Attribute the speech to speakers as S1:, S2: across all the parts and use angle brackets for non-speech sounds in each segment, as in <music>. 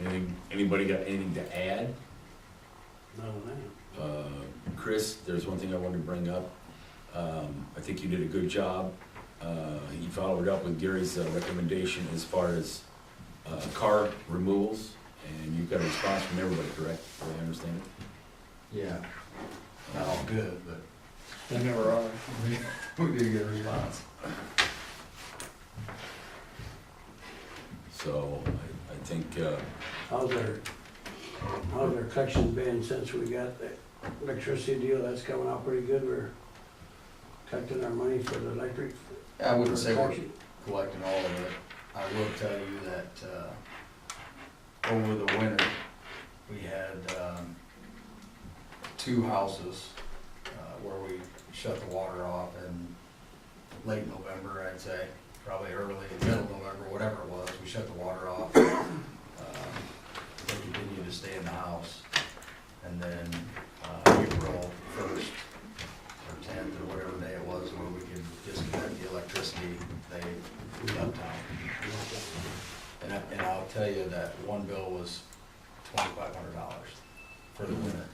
S1: Anything, anybody got anything to add?
S2: No, no.
S1: Uh, Chris, there's one thing I wanted to bring up. Um, I think you did a good job. Uh, you followed up with Gary's uh, recommendation as far as, uh, car removals, and you got a response from everybody, correct? Do I understand it?
S3: Yeah, not all good, but
S2: They never are.
S3: we, <laughs> we did get a response.
S1: So, I, I think, uh,
S2: How's our, how's our collection been since we got the electricity deal? That's coming out pretty good. We're collecting our money for the electric.
S3: I wouldn't say we're
S2: portion.
S3: collecting all of it. I will tell you that, uh, over the winter, we had, um, two houses, uh, where we shut the water off in late November, I'd say, probably early, middle November, whatever it was, we shut the water off. <coughs> Um, They continued to stay in the house, and then, uh, April first, or tenth or whatever day it was where we could disconnect the electricity, they left town. And I, and I'll tell you that one bill was twenty-five hundred dollars for the winter.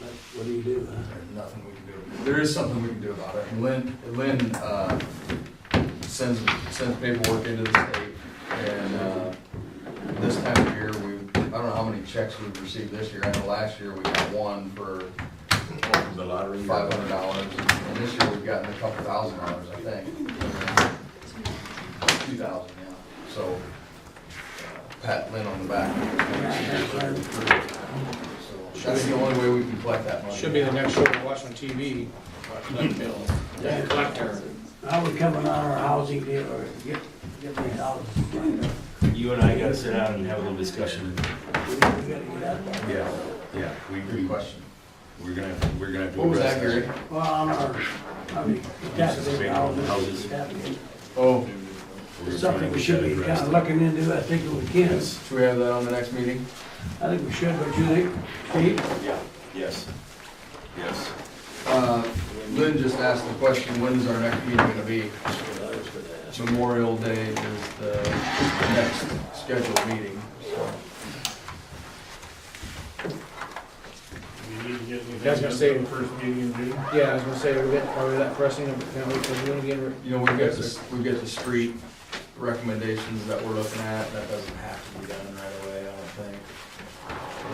S2: But What do you do, huh?
S3: There's nothing we can do. There is something we can do about it. Lynn, Lynn, uh, sends, sends paperwork into the state and, uh, this time of year, we, I don't know how many checks we've received this year. I know last year we got one for
S1: the lottery.
S3: five hundred dollars, and this year we've gotten a couple thousand dollars, I think. Two thousand, yeah, so, uh, pat Lynn on the back. So, That's the only way we can collect that money.
S4: Should be the next show we watch on TV, electric bill,
S3: Yeah.
S4: collector.
S2: How we coming on our housing deal or get, get these houses?
S5: You and I gotta sit down and have a little discussion.
S2: We gotta get out there.
S5: Yeah, yeah, we,
S3: Good question.
S5: we're gonna, have- we're gonna have to.
S3: What was
S5: address
S3: that, Gary?
S2: Well, on our, I mean, taxes, houses, taxes.
S3: Oh,
S5: We're gonna try
S2: Something
S5: and
S2: we
S5: get
S2: should
S5: that
S2: be
S5: addressed.
S2: kinda looking into, I think we can.
S3: should we have that on the next meeting?
S2: I think we should, but you think, Steve?
S1: Yeah, yes, yes.
S3: Uh, Lynn just asked the question, when's our next meeting gonna be? Memorial Day is the next scheduled meeting, so.
S6: You need to get anything.
S4: That's gonna save-
S6: First meeting in June.
S4: Yeah, I was gonna say, we got probably that pressing, but can't wait till June again.
S3: You know, we've got the, we've got the street recommendations that we're looking at, that doesn't have to be done right away, I Um,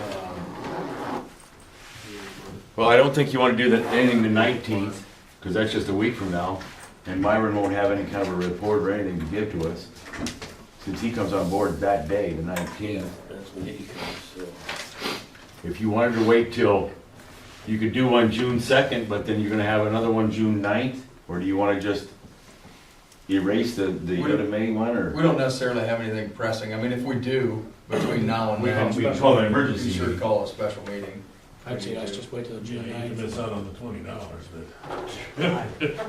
S3: don't
S5: Well, I don't think you wanna do that, anything the nineteenth, cause that's just a week from now, and Myron won't have any kind of a report or anything to give to us. Since he comes on board that day, the nineteenth. If you wanted to wait till, you could do one June second, but then you're gonna have another one June 9th. or do you wanna just erase the, the
S3: We-
S5: other May one,
S3: <laughs> think.
S5: or?
S3: We don't necessarily have anything pressing, I mean, if we do, between now and
S5: We
S3: then,
S5: can, we
S3: we
S5: can call it an
S3: can
S5: emergency
S3: sure
S5: meeting.
S3: call a special meeting.
S4: I'd say let's just wait till
S6: You
S4: June
S6: can
S4: ninth.
S6: miss out on the twenty dollars, but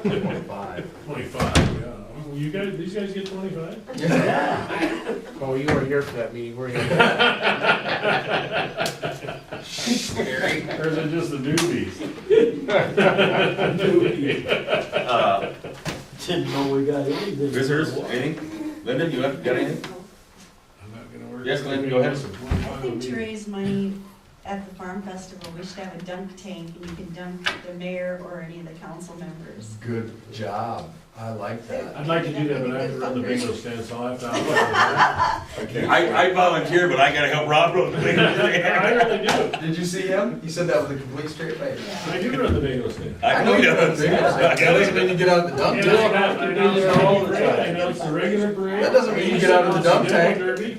S3: <laughs> Twenty-five.
S6: twenty-five, yeah. Well, You guys, these guys get twenty-five?
S3: Yeah,
S4: Oh, you were here for that meeting, were you?
S3: Gary.
S6: Or is it just the newbies?
S2: Didn't know we got anything.
S5: Uh, Visitors, anything? Linda, you have, got anything?
S6: I'm not gonna work.
S5: Yes, Glenn, go ahead.
S7: I think to raise money at the farm festival, we should have a dunk tank, and you can dunk the mayor or any of the council members.
S3: Good job, I like that.
S6: I'd like to do that, but I have to run the bingo stand, so I have to. I'll-
S5: I, I volunteer, but I gotta help Rob run the
S6: I really do.
S3: Did you see him? He said that with a complete straight face.
S6: I do run the bingo stand.
S5: I know he does.
S3: That doesn't mean you get out of the dump
S6: And
S3: tank.
S6: I announce- I announce
S4: there all
S6: the
S4: the
S6: parade, I
S4: time.
S6: announce the regular parade.
S3: That doesn't mean you get out of the dump tank.
S6: Announce the derby.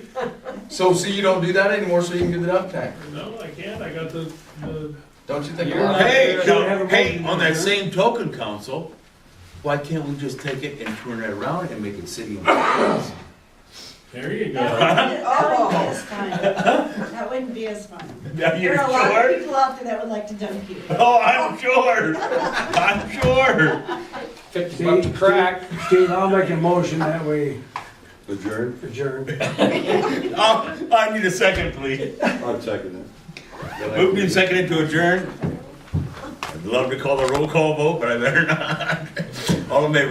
S3: So, see, you don't do that anymore, so you can do the dump tank.
S6: No, I can't, I got the, the,
S3: Don't you think?
S2: You're not-
S1: Hey,
S2: Should we have
S5: now,
S2: a vote?
S5: hey, on that same token, council, why can't we just take it and turn it around and make it city?
S6: there you go.
S7: That wouldn't be as fun. That wouldn't be as fun.
S5: Now,
S7: There are a lot of people out there that would like to dunk you.
S5: <laughs> Oh, I'm sure, I'm sure.
S4: Fifty bucks a crack.
S2: Steve, I'll make a motion that we
S8: Adjourn?
S2: adjourn.
S5: Oh, I need a second, please.
S8: I'll second
S5: Moved and seconded to adjourn. I'd love to call the roll call vote, but I better not. <laughs> All in favor,